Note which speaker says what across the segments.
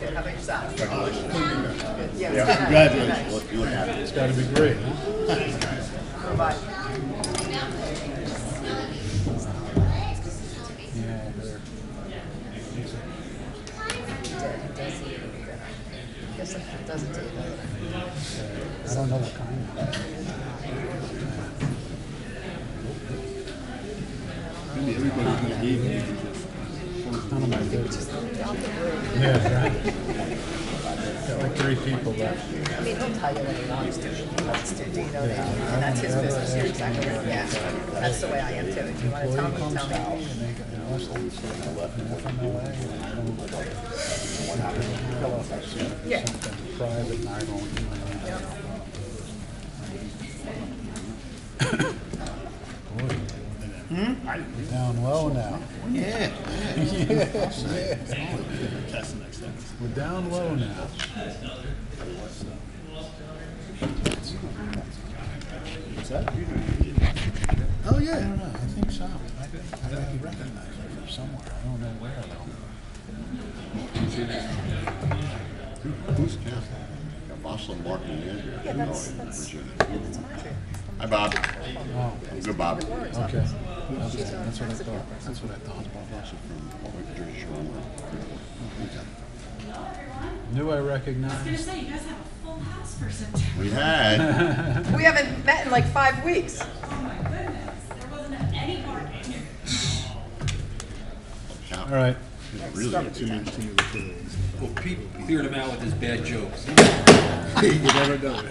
Speaker 1: Good, how about yourself? Yeah,
Speaker 2: Yeah.
Speaker 1: it's good.
Speaker 3: Congratulations. Look, you look happy.
Speaker 2: It's gotta be great, huh?
Speaker 1: Bye.
Speaker 2: Yeah, there.
Speaker 1: Guess it doesn't take that.
Speaker 2: uh, I don't know what kind.
Speaker 3: Really, everybody's gonna be here. You can just-
Speaker 2: None of my business. Yeah, right. Got like three people left.
Speaker 1: I mean, he'll tell you what he wants to, he wants to, do you know, that, and that's his business, you're exactly right, yeah. That's the way I am too, if you wanna tell me,
Speaker 2: Employee
Speaker 1: tell
Speaker 2: comes out
Speaker 1: me.
Speaker 2: and they get an arrest and say, "I left an FMLA and I don't know what it is." What happened? Fill out that sheet
Speaker 1: Yeah.
Speaker 2: or something private and I don't, I don't know. Boy. Down low now.
Speaker 3: Yeah, yeah.
Speaker 2: Yes, yes.
Speaker 3: That's the next thing.
Speaker 2: We're down low now.
Speaker 3: What's that? You don't need it.
Speaker 2: Oh, yeah. I don't know, I think so. I think I recognize it from somewhere, I don't know where though.
Speaker 3: Who- Who's Kathy? A Muslim marketing manager. Yeah, that's, that's. Hi, Bob.
Speaker 2: Oh,
Speaker 3: I'm good, Bob.
Speaker 2: okay. Okay, That's what I thought, that's what I thought.
Speaker 3: From Jersey Shore.
Speaker 2: Knew I recognized.
Speaker 4: say, you guys have a full house for September.
Speaker 3: We had,
Speaker 1: We haven't met in like five weeks.
Speaker 4: Oh my goodness, there wasn't any parking.
Speaker 2: All right,
Speaker 3: really, too many, too many kids.
Speaker 5: Well, Pete cleared him out with his bad jokes.
Speaker 2: you never know.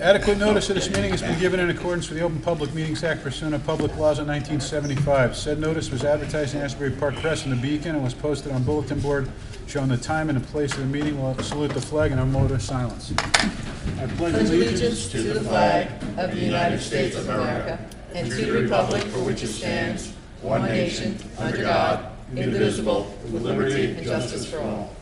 Speaker 2: Adequate notice of this meeting has been given in accordance with the Open Public Meetings Act pursuant to public laws of 1975. Said notice was advertised in Asbury Park Press and the Beacon and was posted on bulletin board showing the time and the place of the meeting. We'll salute the flag and our moment of silence. I pledge allegiance
Speaker 6: to the flag of the United States of America and to the republic for which it stands, one nation, under God, indivisible, with liberty and justice for all.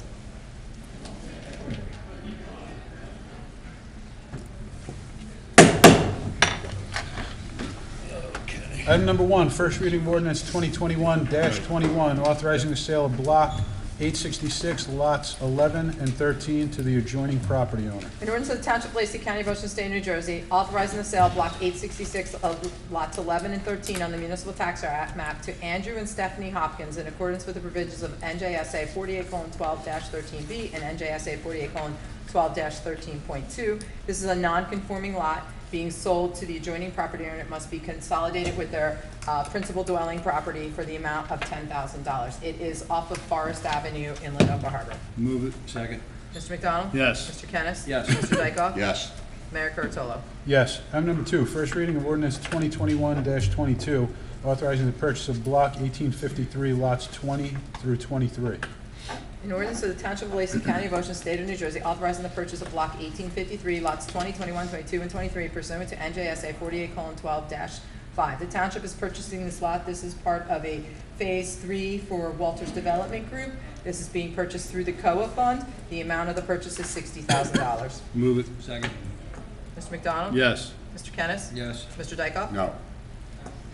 Speaker 2: Item number one, first reading of ordinance 2021-21, authorizing the sale of block 866, lots 11 and 13 to the adjoining property owner.
Speaker 6: In order to the Township of Lacey County, Ocean State, New Jersey, authorizing the sale of block eight sixty-six of lots eleven and thirteen on the municipal tax map to Andrew and Stephanie Hopkins in accordance with the provisions of NJSA forty-eight twelve thirteen B and NJSA forty-eight twelve thirteen point two. This is a non-conforming lot being sold to the adjoining property owner. It must be consolidated with their, uh, principal dwelling property for the amount of ten thousand dollars. It is off of Forest Avenue in Lenoka Harbor.
Speaker 5: Move it. Second.
Speaker 6: Mr. McDonald?
Speaker 3: Yes.
Speaker 6: Mr. Kennis?
Speaker 5: Yes.
Speaker 6: Mr. Dykoff?
Speaker 3: Yes,
Speaker 6: Mayor Kurtolo.
Speaker 2: Yes. Item number two, first reading of ordinance 2021-22, authorizing the purchase of block 1853, lots 20 through 23.
Speaker 6: An ordinance of the Township of Lacey County, of Ocean State of New Jersey, authorizing the purchase of block eighteen fifty-three, lots 20, 21, 22, and twenty-three pursuant to NJSA forty-eight twelve five. The township is purchasing this lot. This is part of a phase three for Walters Development Group. This is being purchased through the COA fund. The amount of the purchase is sixty thousand dollars.
Speaker 5: Move it. Second.
Speaker 6: Mr. McDonald?
Speaker 2: Yes.
Speaker 6: Mr. Kennis?
Speaker 5: Yes.
Speaker 6: Mr. Dykoff?
Speaker 3: no,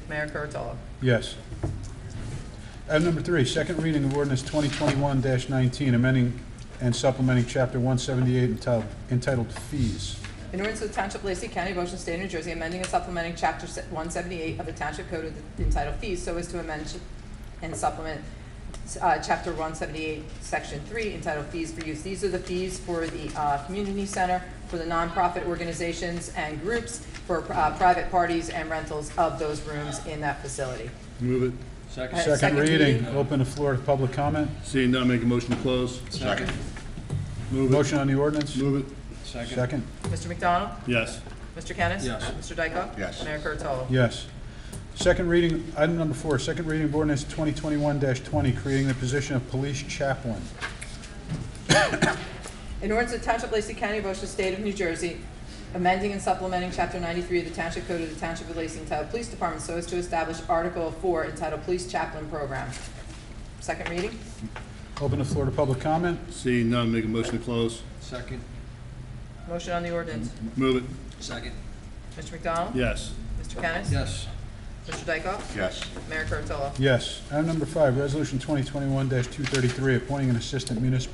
Speaker 6: Mayor Kurtolo.
Speaker 2: Yes. Item number three, second reading of ordinance 2021-19, amending and supplementing Chapter 178 entitled- entitled Fees.
Speaker 6: In order to the Township of Lacey County, Ocean State of New Jersey, amending and supplementing Chapter one seventy-eight of the Township Code entitled Fees so as to amend and supplement uh, Chapter one seventy-eight, Section three, entitled Fees for Use. These are the fees for the uh, community center, for the nonprofit organizations and groups, for uh, private parties and rentals of those rooms in that facility.
Speaker 7: Move it.
Speaker 5: Second.
Speaker 6: Aye.
Speaker 2: Second
Speaker 6: second
Speaker 2: reading,
Speaker 6: reading.
Speaker 2: open the floor to public comment.
Speaker 7: Seeing none, make a motion to close.
Speaker 3: second,
Speaker 7: Move it.
Speaker 2: Motion on the ordinance?
Speaker 7: Move it.
Speaker 5: Second.
Speaker 2: Second.
Speaker 6: Mr. McDonald?
Speaker 7: Yes.
Speaker 6: Mr. Kennis?
Speaker 5: Yes.
Speaker 6: Mr. Dykoff?
Speaker 3: Yes.
Speaker 6: Mayor Kurtolo?
Speaker 2: Yes. Second reading, item number four, second reading of ordinance 2021-20, creating the position of police chaplain.
Speaker 6: In order to the Township of Lacey County, of Ocean State of New Jersey, amending and supplementing Chapter 93 of the Township Code of the Township of Lacey entitled Police Department so as to establish Article 4 entitled Police Chaplain Program. Second reading?
Speaker 2: Open the floor to public comment.
Speaker 7: Seeing none, make a motion to close.
Speaker 5: Second.
Speaker 6: Motion on the ordinance.
Speaker 7: Move it.
Speaker 5: Second.
Speaker 6: Mr. McDonald?
Speaker 7: Yes.
Speaker 6: Mr. Kennis?
Speaker 5: Yes.
Speaker 6: Mr. Dykoff?
Speaker 3: yes,
Speaker 6: Mayor Kurtolo?
Speaker 2: Yes. Item number five, resolution 2021-233, appointing an assistant municipal